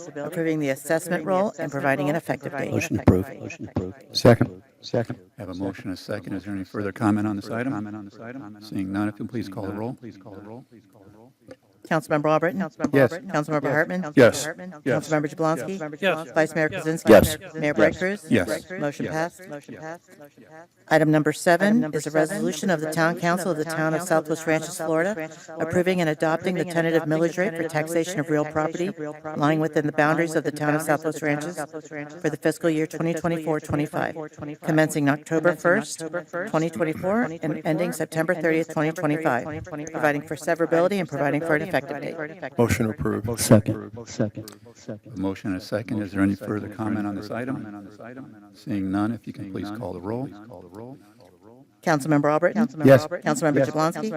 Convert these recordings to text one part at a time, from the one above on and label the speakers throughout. Speaker 1: approving the assessment role and providing an effective date.
Speaker 2: Motion approved. Motion approved.
Speaker 3: Second. Second.
Speaker 4: I have a motion, and a second. Is there any further comment on this item? Comment on this item? Seeing none, if you'll please call the roll. Please call the roll.
Speaker 1: Councilmember Albritton?
Speaker 3: Yes.
Speaker 1: Councilmember Hartman?
Speaker 4: Yes. Yes.
Speaker 1: Councilmember Jablonski?
Speaker 5: Yes.
Speaker 1: Vice Mayor Kaczynski?
Speaker 2: Yes.
Speaker 1: Mayor Bright Cruz?
Speaker 4: Yes.
Speaker 1: Motion passed. Motion passed. Item number seven is a resolution of the Town Council of the Town of Southwest Ranches, Florida, approving and adopting the tentative millage rate for taxation of real property lying within the boundaries of the Town of Southwest Ranches for the fiscal year 2024-25, commencing October 1st, 2024, and ending September 30th, 2025, providing for severability and providing for an effective date.
Speaker 3: Motion approved.
Speaker 2: Second. Second.
Speaker 4: A motion, and a second. Is there any further comment on this item? Seeing none, if you can please call the roll.
Speaker 1: Councilmember Albritton?
Speaker 3: Yes.
Speaker 1: Councilmember Jablonski?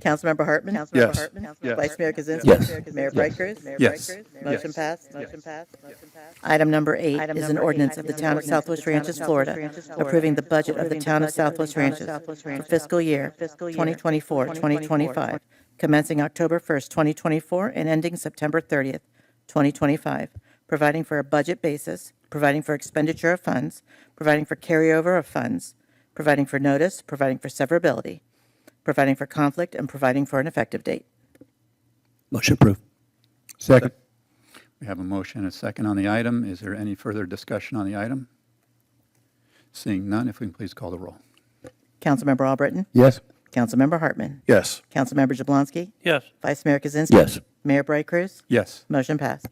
Speaker 1: Councilmember Hartman?
Speaker 4: Yes.
Speaker 1: Vice Mayor Kaczynski?
Speaker 2: Yes.
Speaker 1: Mayor Bright Cruz?
Speaker 4: Yes.
Speaker 1: Motion
Speaker 4: Yes.
Speaker 1: passed. Motion passed. Item number eight is an ordinance of the Town of Southwest Ranches, Florida, approving the budget of the Town of Southwest Ranches for fiscal year 2024-2025, commencing October 1st, 2024, and ending September 30th, 2025, providing for a budget basis, providing for expenditure of funds, providing for carryover of funds, providing for notice, providing for severability, providing for conflict, and providing for an effective date.
Speaker 2: Motion approved.
Speaker 3: Second.
Speaker 4: We have a motion, and a second on the item. Is there any further discussion on the item? Seeing none, if we can please call the roll.
Speaker 1: Councilmember Albritton?
Speaker 3: Yes.
Speaker 1: Councilmember Hartman?
Speaker 3: Yes.
Speaker 1: Councilmember Jablonski?
Speaker 5: Yes,
Speaker 1: Vice Mayor Kaczynski?
Speaker 2: Yes.
Speaker 1: Mayor Bright Cruz?
Speaker 4: Yes.
Speaker 1: Motion passed.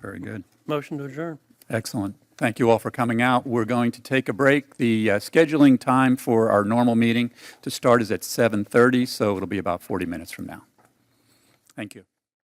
Speaker 4: Very good.
Speaker 5: motion to adjourn.
Speaker 4: Excellent. Thank you all for coming out. We're going to take a break. The uh, scheduling time for our normal meeting to start is at 7:30, so it'll be about 40 minutes from now. Thank you.